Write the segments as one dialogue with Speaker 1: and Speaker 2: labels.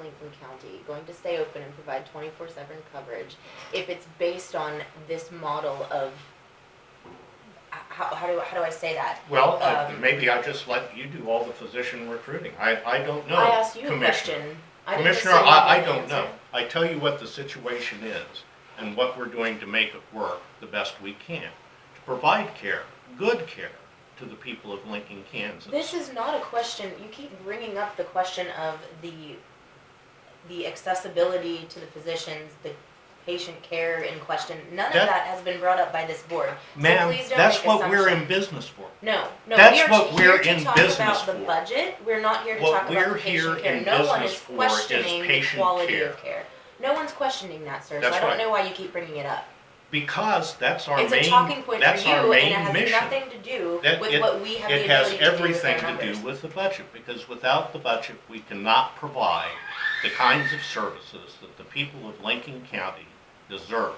Speaker 1: Lincoln County going to stay open and provide twenty-four seven coverage if it's based on this model of, h- how, how do, how do I say that?
Speaker 2: Well, I-
Speaker 1: Um,
Speaker 2: maybe I just let you do all the physician recruiting. I, I don't know.
Speaker 1: I asked you a
Speaker 2: Commissioner.
Speaker 1: question. I didn't
Speaker 2: Commissioner,
Speaker 1: assume you
Speaker 2: I, I
Speaker 1: knew the
Speaker 2: don't know.
Speaker 1: answer.
Speaker 2: I tell you what the situation is and what we're doing to make it work the best we can. To provide care, good care, to the people of Lincoln, Kansas.
Speaker 1: This is not a question, you keep bringing up the question of the, the accessibility to the physicians, the patient care in question. None of
Speaker 2: That-
Speaker 1: that has been brought up by this board. So
Speaker 2: Ma'am,
Speaker 1: please don't
Speaker 2: that's
Speaker 1: make
Speaker 2: what we're in
Speaker 1: assumptions.
Speaker 2: business for.
Speaker 1: No, no,
Speaker 2: that's
Speaker 1: we are
Speaker 2: what
Speaker 1: here
Speaker 2: we're
Speaker 1: to
Speaker 2: in
Speaker 1: talk
Speaker 2: business
Speaker 1: about the
Speaker 2: for.
Speaker 1: budget. We're not here to
Speaker 2: What
Speaker 1: talk about
Speaker 2: we're
Speaker 1: the
Speaker 2: here
Speaker 1: patient care.
Speaker 2: in
Speaker 1: No one
Speaker 2: business
Speaker 1: is
Speaker 2: for is
Speaker 1: questioning the
Speaker 2: patient
Speaker 1: quality
Speaker 2: care.
Speaker 1: of care. No one's questioning that, sir, so
Speaker 2: That's
Speaker 1: I don't
Speaker 2: right.
Speaker 1: know why you keep bringing it up.
Speaker 2: Because that's our main,
Speaker 1: It's a talking point
Speaker 2: that's
Speaker 1: for
Speaker 2: our
Speaker 1: you and it
Speaker 2: main
Speaker 1: has
Speaker 2: mission.
Speaker 1: nothing to do
Speaker 2: That-
Speaker 1: with
Speaker 2: it-
Speaker 1: what we have the
Speaker 2: It has
Speaker 1: ability to do with our
Speaker 2: everything to
Speaker 1: numbers.
Speaker 2: do with the budget, because without the budget, we cannot provide the kinds of services that the people of Lincoln County deserve.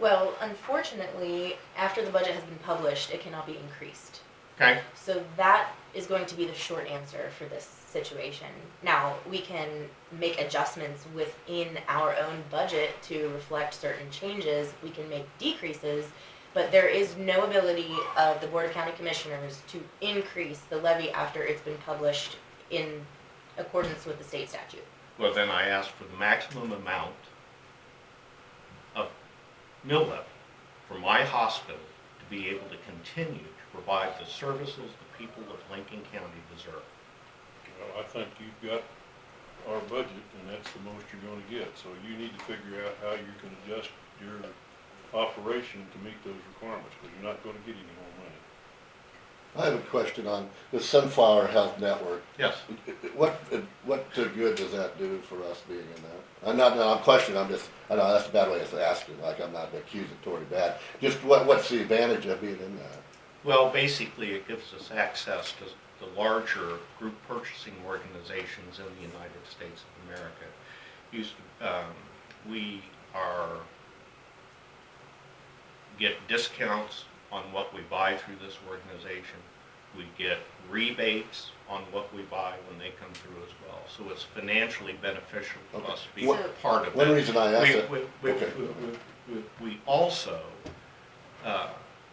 Speaker 1: Well, unfortunately, after the budget has been published, it cannot be increased.
Speaker 2: Okay?
Speaker 1: So that is going to be the short answer for this situation. Now, we can make adjustments within our own budget to reflect certain changes. We can make decreases, but there is no ability of the Board of County Commissioners to increase the levy after it's been published in accordance with the state statute.
Speaker 2: Well, then I ask for the maximum amount of mill levy for my hospital to be able to continue to provide the services the people of Lincoln County deserve.
Speaker 3: Well, I think you've got our budget, and that's the most you're gonna get, so you need to figure out how you can adjust your operation to meet those requirements, because you're not gonna get any more money.
Speaker 4: I have a question on the Sunflower Health Network.
Speaker 2: Yes.
Speaker 4: What, what good does that do for us being in that? I'm not, no, I'm questioning, I'm just, I know, that's a bad way of asking, like, I'm not accusatory bad. Just what, what's the advantage of being in that?
Speaker 2: Well, basically, it gives us access to the larger group purchasing organizations in the United States of America. Used, to- um, we are, get discounts on what we buy through this organization. We get rebates on what we buy when they come through as well. So it's financially beneficial to us to be
Speaker 4: Okay.
Speaker 2: part of it.
Speaker 4: One reason I asked
Speaker 2: We,
Speaker 4: that,
Speaker 2: we, we,
Speaker 4: Okay.
Speaker 2: we- we- we also, uh,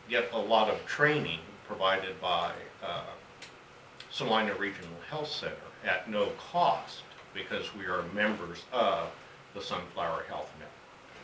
Speaker 2: get a lot of training provided by, uh, Salina Regional Health Center at no cost because we are members of the Sunflower Health Network.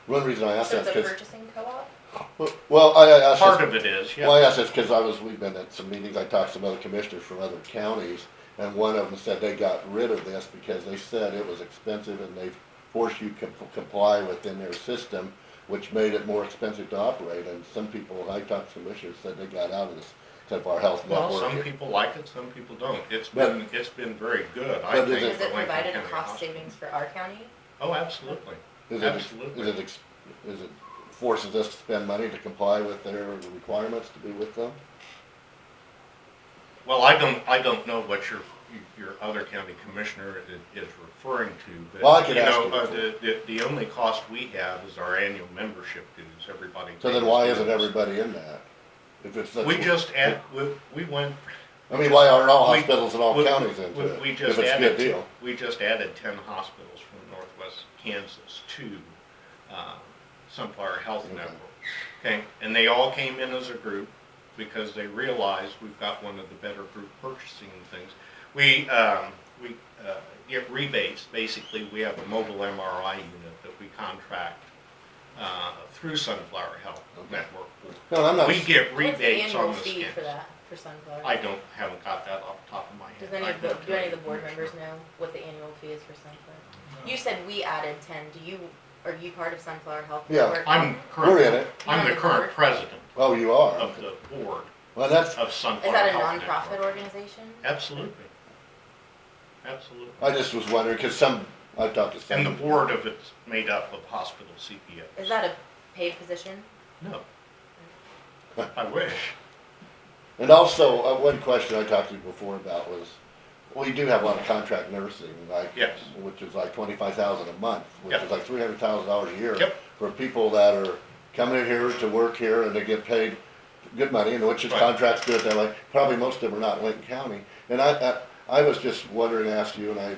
Speaker 4: one reason I asked
Speaker 1: So
Speaker 4: that,
Speaker 1: it's a
Speaker 4: because,
Speaker 1: purchasing co-op?
Speaker 4: well, I, I asked. this-
Speaker 2: Part of it is,
Speaker 4: Well, I
Speaker 2: yeah,
Speaker 4: asked this because I was, we've been at some meetings, I talked to some other commissioners from other counties, and one of them said they got rid of this because they said it was expensive and they forced you to comply within their system, which made it more expensive to operate, and some people, I talked to commissioners, said they got out of this, type of our health
Speaker 2: well, some
Speaker 4: network.
Speaker 2: people like it, some people don't. It's
Speaker 4: But-
Speaker 2: been, it's been very good, I
Speaker 4: But is
Speaker 2: think.
Speaker 1: Has
Speaker 2: for
Speaker 1: it
Speaker 2: Lincoln
Speaker 1: provided a
Speaker 2: County
Speaker 1: cost
Speaker 2: Hospital.
Speaker 1: savings for our county?
Speaker 2: Oh, absolutely.
Speaker 4: Is it-
Speaker 2: absolutely.
Speaker 4: Is it, ex- is it forces us to spend money to comply with their requirements to be with them?
Speaker 2: Well, I don't, I don't know what your, your other county commissioner i- is referring to,
Speaker 4: Well, I
Speaker 2: but,
Speaker 4: could
Speaker 2: you
Speaker 4: ask
Speaker 2: know,
Speaker 4: him
Speaker 2: uh,
Speaker 4: for-
Speaker 2: the, the, the only cost we have is our annual membership dues, everybody.
Speaker 4: So then
Speaker 2: pays
Speaker 4: why isn't
Speaker 2: dues.
Speaker 4: everybody in that? If it's such-
Speaker 2: We just add, we, we went.
Speaker 4: I mean, why aren't all
Speaker 2: we-
Speaker 4: hospitals in all
Speaker 2: we-
Speaker 4: counties into
Speaker 2: we-
Speaker 4: it?
Speaker 2: We just
Speaker 4: If it's a good
Speaker 2: added,
Speaker 4: deal.
Speaker 2: we just added ten hospitals from northwest Kansas to, uh, Sunflower Health
Speaker 4: Okay.
Speaker 2: Network. Okay, and they all came in as a group because they realized we've got one of the better group purchasing things. We, um, we, uh, get rebates, basically, we have a mobile MRI unit that we contract, uh, through Sunflower Health
Speaker 4: Okay.
Speaker 2: Network.
Speaker 4: No, I'm not.
Speaker 2: We get
Speaker 1: What's the
Speaker 2: rebates
Speaker 1: annual
Speaker 2: on the
Speaker 1: fee
Speaker 2: scans.
Speaker 1: For that, for Sunflower?
Speaker 2: I don't, haven't got that off the top of my head.
Speaker 1: Does any
Speaker 2: I
Speaker 1: of the,
Speaker 2: can
Speaker 1: do any of
Speaker 2: tell
Speaker 1: the board
Speaker 2: you.
Speaker 1: members know what the annual fee is for Sunflower? You said we added ten, do you, are you part of Sunflower Health
Speaker 4: Yeah.
Speaker 1: Network?
Speaker 2: I'm
Speaker 4: We're in
Speaker 2: current,
Speaker 4: it.
Speaker 2: I'm the current president
Speaker 4: Oh, you are?
Speaker 2: of
Speaker 4: Okay.
Speaker 2: the board
Speaker 4: Well, that's,
Speaker 2: of Sunflower
Speaker 1: Is that a
Speaker 2: Health
Speaker 1: nonprofit
Speaker 2: Network.
Speaker 1: organization?
Speaker 2: Absolutely. Absolutely.
Speaker 4: I just was wondering, cause some, I talked to some.
Speaker 2: And the board of it's made up of hospital CPOs.
Speaker 1: Is that a paid position?
Speaker 2: No. I wish.
Speaker 4: And also, uh, one question I talked to you before about was, we do have a lot of contract nursing, like.
Speaker 2: Yes.
Speaker 4: Which is like twenty-five thousand a month, which
Speaker 2: Yep.
Speaker 4: is like three hundred thousand dollars a year.
Speaker 2: Yep.
Speaker 4: For people that are coming in here to work here and they get paid good money, and which is
Speaker 2: Right.
Speaker 4: contracts good, they're like, probably most of them are not in Lincoln County. And I, I, I was just wondering, asked you, and I